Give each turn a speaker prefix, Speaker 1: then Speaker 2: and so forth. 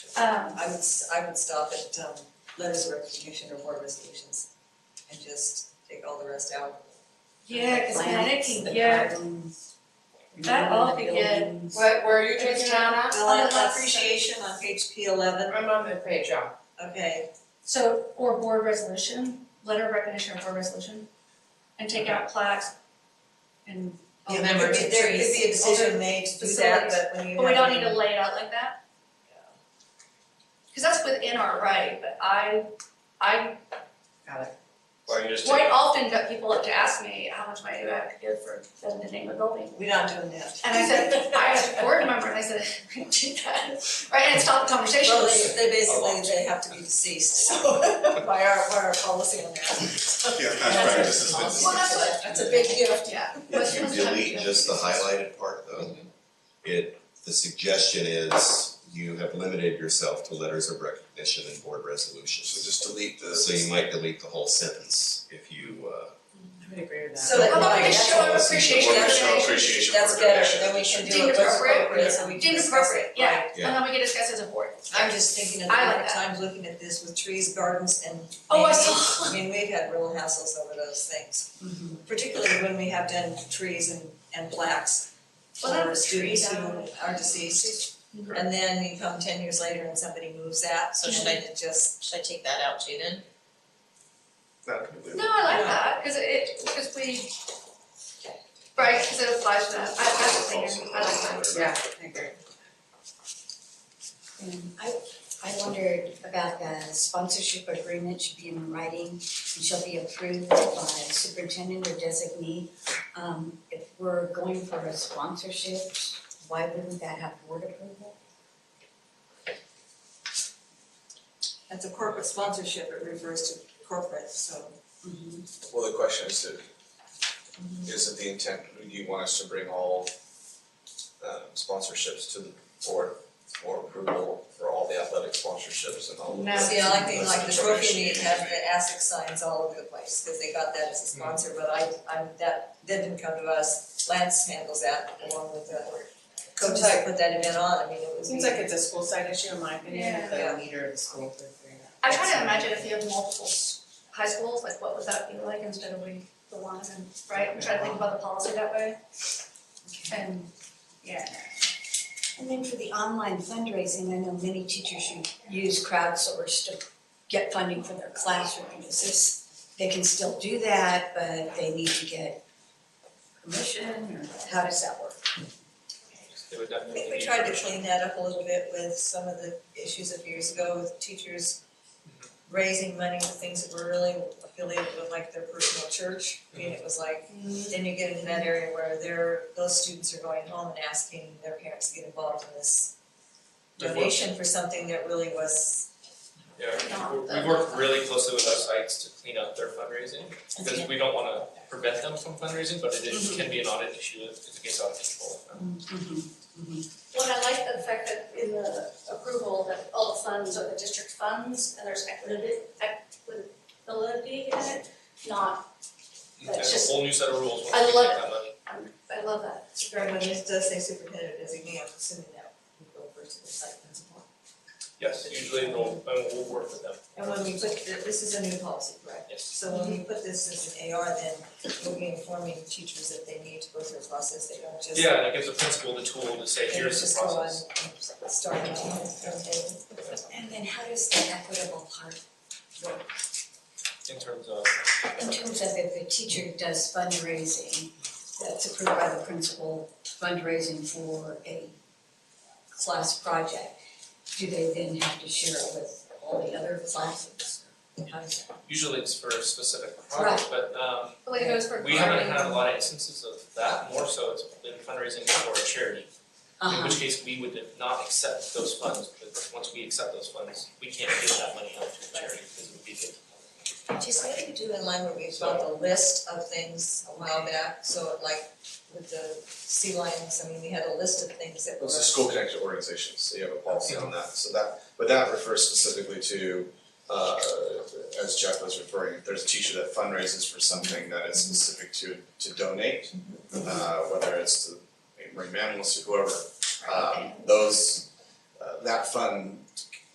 Speaker 1: Um,
Speaker 2: I would, s- I would stop at, um, letters of recognition or board resolutions and just take all the rest out.
Speaker 1: yeah, cause man, it
Speaker 3: plants,
Speaker 1: can
Speaker 3: the
Speaker 1: get,
Speaker 3: gardens,
Speaker 1: that all
Speaker 3: the
Speaker 1: can get,
Speaker 3: buildings.
Speaker 4: What, where are you taking it out?
Speaker 1: out?
Speaker 2: Well, appreciation on page P eleven,
Speaker 4: I'm on the page, yeah.
Speaker 2: okay,
Speaker 1: so, or board resolution, letter of recognition or board resolution, and take out plaques and. all
Speaker 2: Yeah,
Speaker 1: that.
Speaker 2: there could be, there could be a decision made to do that,
Speaker 1: facilities.
Speaker 2: but when you
Speaker 1: But we
Speaker 2: have
Speaker 1: don't need to lay it out like that? Cause that's within our right, but I, I
Speaker 3: Got it.
Speaker 5: Or you just take
Speaker 1: quite often got people up to ask me how much money do I have to give for the name of the building.
Speaker 2: We're not doing that.
Speaker 1: And I said, I was a board member, and I said, I can't do that, right, and it stopped the conversation.
Speaker 2: Well, they, they basically, they have to be deceased, so by our, by our policy on that.
Speaker 6: Yeah, past practice has
Speaker 1: Well,
Speaker 6: been,
Speaker 1: that's what-
Speaker 2: That's a big gift.
Speaker 1: Yeah.
Speaker 7: If you delete just the highlighted part though, it, the suggestion is you have limited yourself to letters of recognition and board
Speaker 6: so
Speaker 7: resolutions.
Speaker 6: just delete the.
Speaker 7: So you might delete the whole sentence if you, uh,
Speaker 3: I would agree with that.
Speaker 2: So
Speaker 1: How about we
Speaker 2: like,
Speaker 1: just show of
Speaker 5: Or
Speaker 1: appreciation,
Speaker 5: just show
Speaker 1: recognition,
Speaker 5: appreciation
Speaker 2: That's
Speaker 5: for
Speaker 2: better,
Speaker 5: donation.
Speaker 2: then we can do
Speaker 1: Deemed
Speaker 2: it what's
Speaker 1: appropriate.
Speaker 2: appropriate, so we can
Speaker 1: deemed
Speaker 2: discuss it,
Speaker 1: appropriate, yeah,
Speaker 2: right.
Speaker 1: and then we can discuss as a board.
Speaker 2: I'm just thinking of the
Speaker 1: I like
Speaker 2: number of
Speaker 1: that.
Speaker 2: times looking at this with trees, gardens and
Speaker 1: Oh, I
Speaker 2: maybe-
Speaker 1: saw. Mm-hmm.
Speaker 2: I mean, we've had real hassles over those things. Particularly when we have done trees and and plaques
Speaker 1: Well, that
Speaker 2: for
Speaker 1: was tree
Speaker 2: students who
Speaker 1: down.
Speaker 2: are deceased.
Speaker 5: Correct.
Speaker 2: And then you come ten years later and somebody moves that, so
Speaker 3: Should
Speaker 2: then it just,
Speaker 3: Should I take that out too then?
Speaker 6: Not completely.
Speaker 1: No, I like that, cause it, cause we, right, cause it applies to that, I, that's clear, I like that.
Speaker 3: Yeah, I agree.
Speaker 8: Um, I, I wondered about the sponsorship agreement should be in writing and shall be approved by superintendent or designee. Um, if we're going for a sponsorship, why wouldn't that have board approval?
Speaker 2: that's a corporate sponsorship, it refers to corporate, so.
Speaker 1: Mm-hmm.
Speaker 5: Well, the question is, that- is it the intent, do you want us to bring all um, sponsorships to the board for approval for all the athletic sponsorships and all of
Speaker 1: No.
Speaker 5: the
Speaker 2: See, I like things like the trophy
Speaker 5: Information
Speaker 2: meet
Speaker 5: meeting.
Speaker 2: has the ASIC signs all over the place, cause they got that as a sponsor, but I, I'm, that, that didn't come to us. Lance handles that along with the coaches that put that event on, I mean, it
Speaker 3: It
Speaker 2: was.
Speaker 3: seems like it's a school side issue in my opinion, if
Speaker 2: Yeah.
Speaker 3: the leader of the school could figure it out.
Speaker 1: I try to imagine if you have multiple s- high schools, like what would that be like instead of we, the one and, right, I'm trying to think about the policy that way. And, yeah,
Speaker 8: And then for the online fundraising, I know many teachers who use crowdsourced to get funding for their classroom. Is this, they can still do that, but they need to get permission or how does that work?
Speaker 5: They would
Speaker 2: I
Speaker 5: definitely
Speaker 2: think we
Speaker 5: need
Speaker 2: tried to
Speaker 5: permission.
Speaker 2: clean that up a little bit with some of the issues a few years ago with teachers raising money for things that were really affiliated with like their personal church. I mean, it was like, then you get into that area where they're, those students are going home and asking their parents to get involved in this
Speaker 5: Of what?
Speaker 2: donation for something that really was,
Speaker 5: Yeah,
Speaker 1: Not
Speaker 5: we- we
Speaker 1: the-
Speaker 5: work really closely with our sites to clean up their fundraising, because we don't wanna prevent them from fundraising, but it
Speaker 1: Mm-hmm.
Speaker 5: is, can be an audit issue if if it gets out of control.
Speaker 1: Well, I like the fact that in the approval that all the funds are the district funds and there's equity, equitability in it, not, That's
Speaker 5: There's
Speaker 1: just-
Speaker 5: a whole new set of rules
Speaker 1: I
Speaker 5: when we
Speaker 1: love
Speaker 5: take that money.
Speaker 1: I love that.
Speaker 2: when this does say superintendent designee, I'm assuming that would go first to the site principal.
Speaker 5: Yes, usually we'll, and we'll work with them,
Speaker 2: And when we put, th- this is a new policy, correct?
Speaker 5: yes.
Speaker 2: So when we put this as an AR, then we'll be informing teachers that they need to go through a process, they don't just.
Speaker 5: Yeah, and it gives the principal the tool to say,
Speaker 2: they don't
Speaker 5: here's
Speaker 2: just
Speaker 5: the
Speaker 2: go on
Speaker 5: process.
Speaker 2: and Start on their own.
Speaker 8: And then how does the equitable part
Speaker 5: In terms of,
Speaker 8: In terms of if the teacher does fundraising, that's approved by the principal, fundraising for a class project, do they then have to share it with all the other classes? How does that?
Speaker 5: usually it's for a specific project, but um
Speaker 1: Well, it goes for.
Speaker 5: we haven't had a lot of instances of that, more so it's been fundraising for a charity. In
Speaker 8: Uh-huh,
Speaker 5: which case, we would not accept those funds, because once we accept those funds, we can't give that money out to a charity, because it would be good.
Speaker 2: Just maybe do in line with we got the list of things a while back, so like with the sea lions, I mean, we had a list of things that were.
Speaker 5: Those are school connected organizations, so you have a policy on that, so that, but that refers specifically to, uh, as Jeff was referring, if there's a teacher that fundraises for something that is specific to, to donate, uh, whether it's to marine mammals or whoever, um, those, uh, that fund